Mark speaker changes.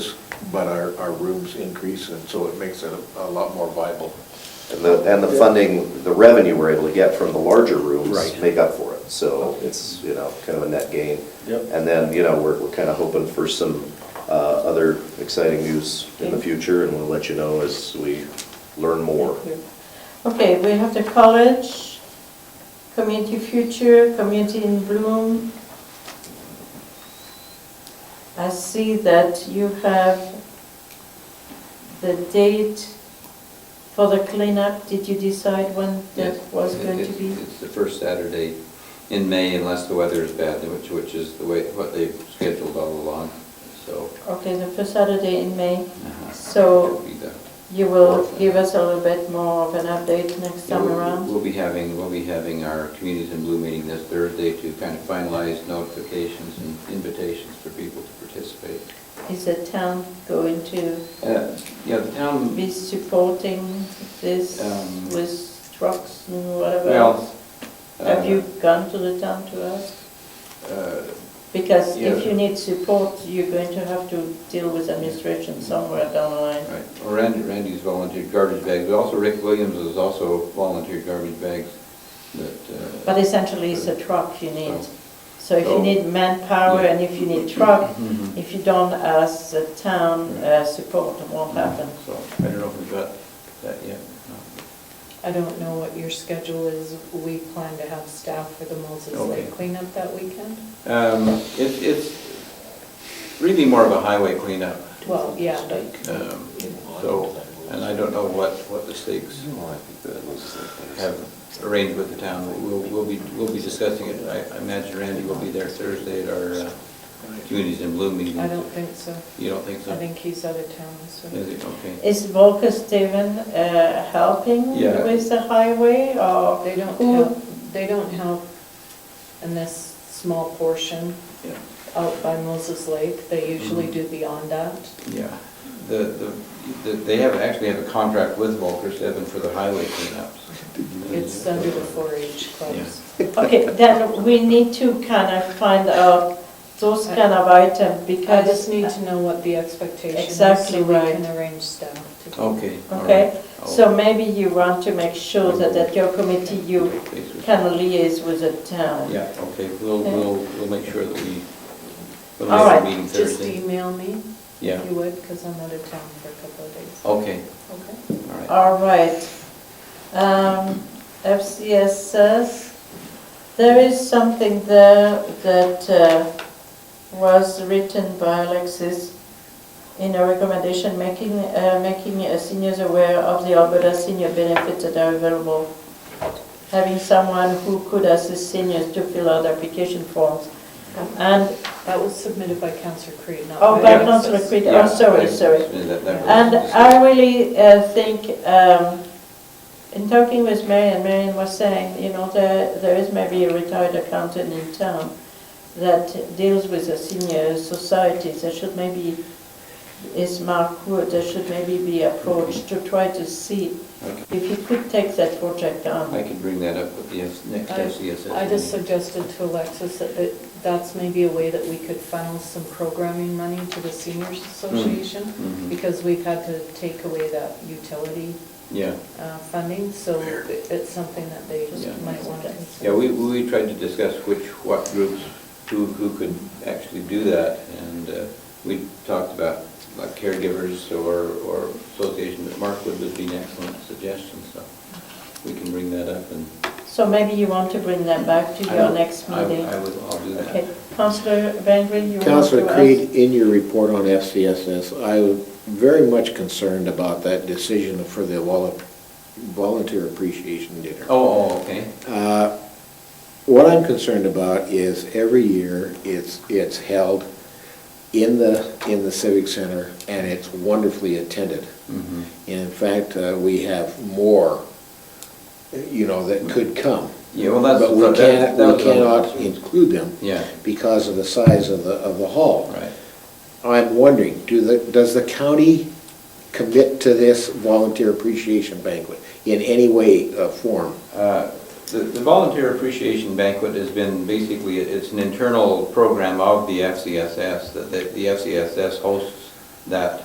Speaker 1: but our, our rooms increase, and so it makes it a- a lot more viable.
Speaker 2: And the, and the funding, the revenue we're able to get from the larger rooms
Speaker 1: Right.
Speaker 2: make up for it. So it's, you know, kind of a net gain.
Speaker 3: Yep.
Speaker 2: And then, you know, we're, we're kind of hoping for some uh, other exciting news in the
Speaker 4: Okay.
Speaker 2: future, and we'll let you know as we learn more.
Speaker 4: Okay, we have the college, community future, community in bloom. I see that you have the date for the cleanup. Did you decide when that
Speaker 5: Yes.
Speaker 4: was
Speaker 5: It-
Speaker 4: going to
Speaker 5: it-
Speaker 4: be?
Speaker 5: It's the first Saturday in May unless the weather is bad, which, which is the way, what they've scheduled all along, so.
Speaker 4: Okay, the first Saturday in May.
Speaker 5: uh,
Speaker 4: Mm-hmm. So-
Speaker 5: it'll be the-
Speaker 4: You will give us a little bit more of an update next
Speaker 5: Yeah,
Speaker 4: time
Speaker 5: we'll-
Speaker 4: around?
Speaker 5: We'll be having, we'll be having our Communities in Blue meeting this Thursday to kind of finalize notifications and invitations for people to participate.
Speaker 4: Is the town going to
Speaker 5: Uh, Yeah, the town,
Speaker 4: be supporting this
Speaker 5: Um,
Speaker 4: with trucks and whatever
Speaker 5: Well,
Speaker 4: else? Have
Speaker 5: uh,
Speaker 4: you gone to the town to ask?
Speaker 5: uh,
Speaker 4: Because if
Speaker 5: Yeah.
Speaker 4: you need support, you're going to have to deal with administration somewhere down the line.
Speaker 5: Right, Well, Randy, Randy's volunteered garbage bags, but also Rick Williams has also volunteered garbage bags that, uh,
Speaker 4: But essentially, it's a truck you need.
Speaker 5: So-
Speaker 4: So if you
Speaker 5: so-
Speaker 4: need manpower
Speaker 5: Oh. Yeah.
Speaker 4: and if you need truck,
Speaker 5: Mhm.
Speaker 4: if you don't ask the town uh, support, it won't happen.
Speaker 5: so I don't know if we've got that yet. No.
Speaker 6: I don't know what your schedule is. We plan to have staff for the Moses
Speaker 5: Okay.
Speaker 6: Lake cleanup that weekend.
Speaker 5: Um, It's, it's really more of a highway cleanup.
Speaker 6: Well, yeah, but
Speaker 5: Um, So, and I don't know what, what the stakes have arranged with the town. We'll, we'll be, we'll be discussing it. I I imagine Randy will be there Thursday at our uh, Communities in Bloom meeting.
Speaker 6: I don't think so.
Speaker 5: You don't think so?
Speaker 6: I think he's out of town this
Speaker 5: Is
Speaker 6: week.
Speaker 5: it? Okay.
Speaker 4: Is Volker Steven uh, helping
Speaker 5: Yeah.
Speaker 4: with the highway or?
Speaker 6: They don't
Speaker 4: who-
Speaker 6: help, they don't help in this small portion
Speaker 5: Yeah.
Speaker 6: out by Moses Lake. They usually do beyond that.
Speaker 5: Yeah, the, the, the- they have, actually have a contract with Volker Seven for the highway cleanups.
Speaker 6: It's under the 4-H clubs.
Speaker 4: Okay, then we need to kind of find out those kind of items
Speaker 6: uh, I
Speaker 4: because.
Speaker 6: just need to know what the expectation is.
Speaker 4: Exactly right.
Speaker 6: So we can arrange staff to do it.
Speaker 5: Okay. all
Speaker 4: Okay,
Speaker 5: right.
Speaker 6: oh.
Speaker 5: I'll-
Speaker 4: so maybe you want to make sure that at your committee, you
Speaker 5: Okay, so-
Speaker 4: can liaise with the town.
Speaker 5: Yeah, okay, we'll,
Speaker 4: Okay.
Speaker 5: we'll, we'll make sure that we, we'll
Speaker 4: All
Speaker 5: have
Speaker 4: right,
Speaker 5: a meeting
Speaker 6: Just
Speaker 5: Thursday.
Speaker 6: email me
Speaker 5: Yeah,
Speaker 6: if you would, because I'm out of town for a couple of days.
Speaker 5: okay,
Speaker 6: Okay.
Speaker 5: all right.
Speaker 4: All right. Um, FCS says, there is something there that uh, was written by Alexis in a recommendation, making, uh, making uh, seniors aware of the Alberta senior benefits that are available. Having someone who could assist seniors to fill out application forms. And
Speaker 6: That was submitted by Counselor Creed, not by...
Speaker 4: Oh, by
Speaker 5: Yeah.
Speaker 4: Councillor
Speaker 6: Alexis.
Speaker 4: Creed,
Speaker 5: Yeah,
Speaker 4: oh, sorry,
Speaker 5: I-
Speaker 4: sorry.
Speaker 5: that- that was-
Speaker 4: And I really uh, think, um, in talking with Marion, Marion was saying, you know, there, there is maybe a retired accountant in town that deals with the senior societies, there should maybe, is Mark Wood, there should maybe be approached to try to see
Speaker 5: Okay.
Speaker 4: if he could take that project
Speaker 5: I
Speaker 4: on.
Speaker 5: can bring that up with the S- next
Speaker 6: I-
Speaker 5: SES.
Speaker 6: I just suggested to Alexis that that that's maybe a way that we could funnel some programming money to the seniors association,
Speaker 5: Mhm.
Speaker 6: because we've had to take away that utility
Speaker 5: Yeah,
Speaker 6: uh, funding, so it- it's something that they
Speaker 5: Yeah.
Speaker 6: might want to consider.
Speaker 5: yeah, we, we tried to discuss which, what groups, who, who could actually do that, and uh, we talked about like caregivers or, or association, but Mark Wood would be an excellent suggestion, so we can bring that up and.
Speaker 4: So maybe you want to bring that back to
Speaker 5: I
Speaker 4: your
Speaker 5: will-
Speaker 4: next
Speaker 5: I-
Speaker 4: meeting.
Speaker 5: I will, I'll do that.
Speaker 4: Okay, Councillor Van Green, you want to ask?
Speaker 1: Councillor Creed, in your report on FCSS, I was very much concerned about that decision for the vol- volunteer appreciation dinner.
Speaker 5: Oh, oh, okay.
Speaker 1: Uh, What I'm concerned about is every year, it's, it's held in the, in the Civic Center, and it's wonderfully attended.
Speaker 5: Mhm.
Speaker 1: And in fact, uh, we have more, you know, that could come.
Speaker 5: Yeah, well, that's.
Speaker 1: But we
Speaker 5: that- that was
Speaker 1: can't, we
Speaker 5: one of the
Speaker 1: cannot
Speaker 5: questions.
Speaker 1: include them
Speaker 5: Yeah,
Speaker 1: because of the size of the, of the hall.
Speaker 5: right.
Speaker 1: I'm wondering, do the, does the county commit to this volunteer appreciation banquet in any way, uh, form?
Speaker 5: Uh, The the volunteer appreciation banquet has been basically, it's an internal program of the FCSS, that the the FCSS hosts that